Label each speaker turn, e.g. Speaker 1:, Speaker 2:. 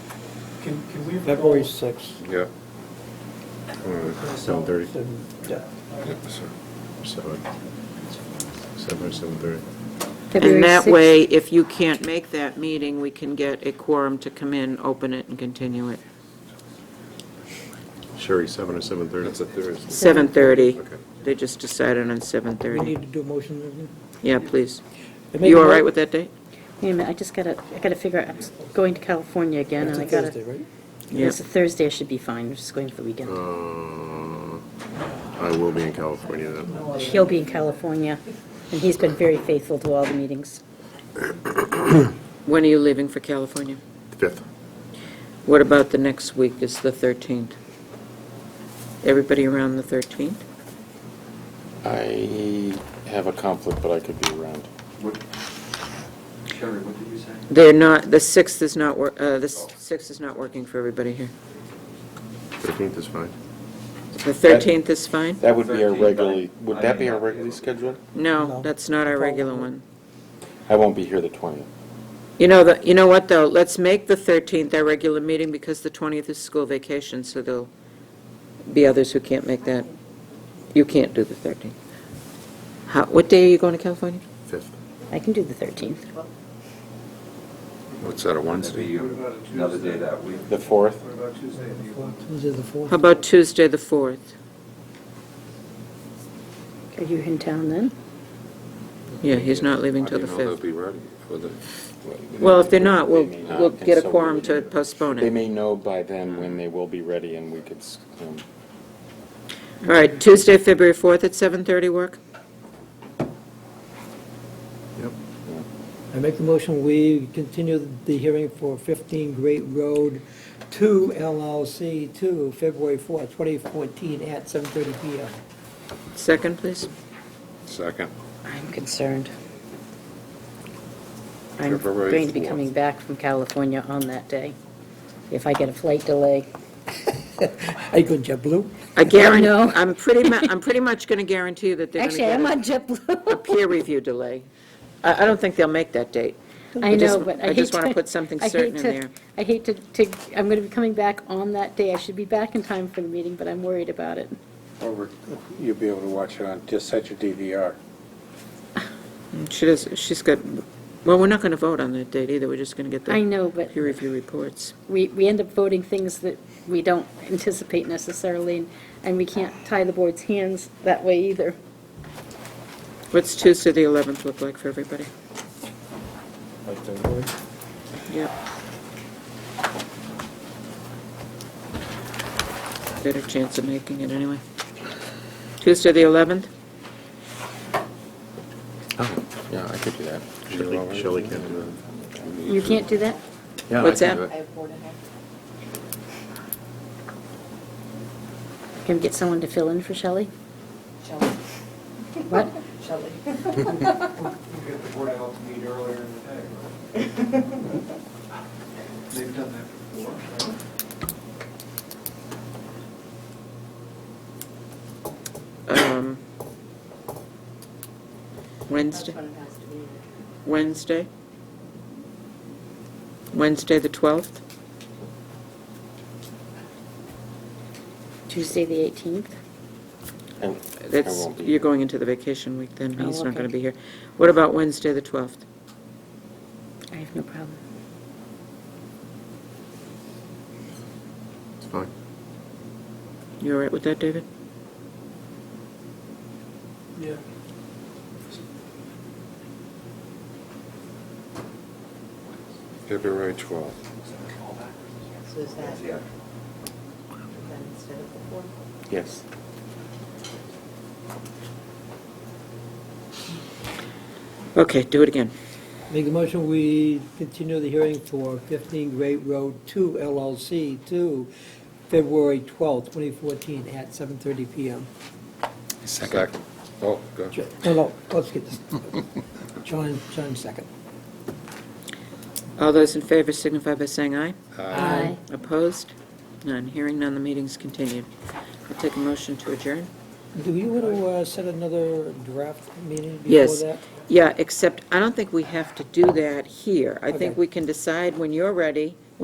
Speaker 1: Can, can we?
Speaker 2: February 6th.
Speaker 3: Yeah. Seven thirty.
Speaker 2: Seven- yeah.
Speaker 3: Seven. Seven or seven thirty.
Speaker 4: And
Speaker 5: February
Speaker 4: that
Speaker 5: 6th.
Speaker 4: way, if you can't make that meeting, we can get a quorum to come in, open it, and continue it.
Speaker 3: Sherry, seven or seven thirty? That's a Thursday.
Speaker 4: 7:30.
Speaker 3: Okay.
Speaker 4: They just decided on
Speaker 2: We
Speaker 4: 7:30.
Speaker 2: need to do a motion. don't
Speaker 4: Yeah, please.
Speaker 2: we?
Speaker 4: You all right with that date?
Speaker 5: Wait a minute, I just gotta, I gotta figure out, I'm s- going to California again,
Speaker 2: It's
Speaker 5: and
Speaker 2: a
Speaker 5: I gotta.
Speaker 2: Thursday, right?
Speaker 4: Yeah.
Speaker 5: It's a Thursday, I should be fine, I'm just going for the weekend.
Speaker 3: Uh, I will be in California then.
Speaker 5: He'll be in California, and he's been very faithful to all the meetings.
Speaker 4: When are you leaving for California?
Speaker 3: Fifth.
Speaker 4: What about the next week is the 13th? Everybody around the 13th?
Speaker 6: I have a conflict, but I could be around.
Speaker 7: What, Sherry, what did you say?
Speaker 4: They're not, the 6th is not, wor- uh, the 6th is not working for everybody here.
Speaker 3: Thirteenth is fine.
Speaker 4: The 13th is fine?
Speaker 6: That would be
Speaker 7: 13th,
Speaker 6: our
Speaker 7: I-
Speaker 6: regularly, would
Speaker 7: I
Speaker 6: that
Speaker 7: may
Speaker 6: be our
Speaker 7: not be
Speaker 6: regularly
Speaker 7: able to.
Speaker 6: scheduled?
Speaker 4: No,
Speaker 2: No.
Speaker 4: that's not our regular one.
Speaker 6: I won't be here the 20th.
Speaker 4: You know, the, you know what, though, let's make the 13th our regular meeting, because the 20th is school vacation, so there'll be others who can't make that. You can't do the 13th. How, what day are you going to California?
Speaker 3: Fifth.
Speaker 5: I can do the 13th.
Speaker 3: What's that, a
Speaker 7: That'd be Another day that week.
Speaker 6: The 4th?
Speaker 2: Tuesday, the 4th.
Speaker 4: How about Tuesday, the 4th?
Speaker 5: Are you in town then?
Speaker 4: Yeah, he's not leaving till the
Speaker 3: How do you know
Speaker 4: 5th.
Speaker 3: they'll be ready for the?
Speaker 4: Well, if they're not, we'll,
Speaker 6: They may not,
Speaker 4: we'll
Speaker 6: Uh, and
Speaker 4: get a
Speaker 6: so we
Speaker 4: quorum
Speaker 6: would-
Speaker 4: to postpone
Speaker 6: They
Speaker 4: it.
Speaker 6: may know by then when they will be ready and we could, s- um,
Speaker 4: All right, Tuesday, February 4th at 7:30 work?
Speaker 3: Yep.
Speaker 2: I make the motion, we continue the hearing for 15 Great Road 2 LLC to February 4th, 2014 at 7:30 PM.
Speaker 4: Second, please?
Speaker 3: Second.
Speaker 5: I'm concerned. I'm
Speaker 3: February
Speaker 5: going to be
Speaker 3: 4th.
Speaker 5: coming back from California on that day, if I get a flight delay.
Speaker 2: Are you going JetBlue?
Speaker 4: I guarantee,
Speaker 5: No.
Speaker 4: I'm pretty mu, I'm pretty much going to guarantee you that they're going to
Speaker 5: Actually,
Speaker 4: get
Speaker 5: I'm
Speaker 4: a-
Speaker 5: on JetBlue.
Speaker 4: a peer review delay. I, I don't think they'll make that date.
Speaker 5: I
Speaker 4: just-
Speaker 5: know, but I hate to...
Speaker 4: I just want to put something
Speaker 5: I hate
Speaker 4: certain in
Speaker 5: to-
Speaker 4: there.
Speaker 5: I hate to, to, I'm going to be coming back on that day. I should be back in time for the meeting, but I'm worried about it.
Speaker 8: Or you'll be able to watch it on, just set your DVR.
Speaker 4: She does, she's got, well, we're not going to vote on that date either, we're just going to get
Speaker 5: I
Speaker 4: the
Speaker 5: know, but
Speaker 4: peer review reports.
Speaker 5: we, we end up voting things that we don't anticipate necessarily, and- and we can't tie the board's hands that way either.
Speaker 4: What's Tuesday, the 11th look like for everybody? Yep. Better chance of making it anyway. Tuesday, the 11th?
Speaker 6: oh, yeah, I could do that. You're
Speaker 3: Shelley,
Speaker 6: all right
Speaker 3: Shelley
Speaker 6: with
Speaker 3: can
Speaker 6: that?
Speaker 3: do that.
Speaker 5: You can't do that?
Speaker 6: Yeah, I
Speaker 4: What's
Speaker 6: can
Speaker 4: that?
Speaker 6: do it.
Speaker 5: Can we get someone to fill in for Shelley? What?
Speaker 7: We'll get the Board of Health to meet earlier in the day. They've done that before, right?
Speaker 4: Um, Wednesday? Wednesday? Wednesday, the 12th?
Speaker 5: Tuesday, the 18th?
Speaker 6: I- I
Speaker 4: That's,
Speaker 6: won't be
Speaker 4: you're going into the vacation week then,
Speaker 5: Oh,
Speaker 4: he's not going to
Speaker 5: okay.
Speaker 4: be here. What about Wednesday, the 12th?
Speaker 5: I have no problem.
Speaker 3: It's fine.
Speaker 4: You all right with that, David?
Speaker 1: Yeah.
Speaker 3: February twelfth.
Speaker 9: So is that,
Speaker 7: That's the actual.
Speaker 9: then instead of the fourth?
Speaker 6: Yes.
Speaker 4: Okay, do it again.
Speaker 2: Make the motion, we continue the hearing for 15 Great Road 2 LLC to February 12th, 2014 at 7:30 PM.
Speaker 3: Second. Oh, go.
Speaker 2: Jo- No, no, let's get this. John, John second.
Speaker 4: All those in favor signify by saying aye.
Speaker 5: Aye.
Speaker 4: Opposed? None. Hearing none, the meeting's continued. I'll take a motion to adjourn.
Speaker 2: Do you want to uh, set another draft meeting before
Speaker 4: Yes.
Speaker 2: that?
Speaker 4: Yeah, except I don't think we have to do that here. I
Speaker 2: Okay.
Speaker 4: think we can decide when you're ready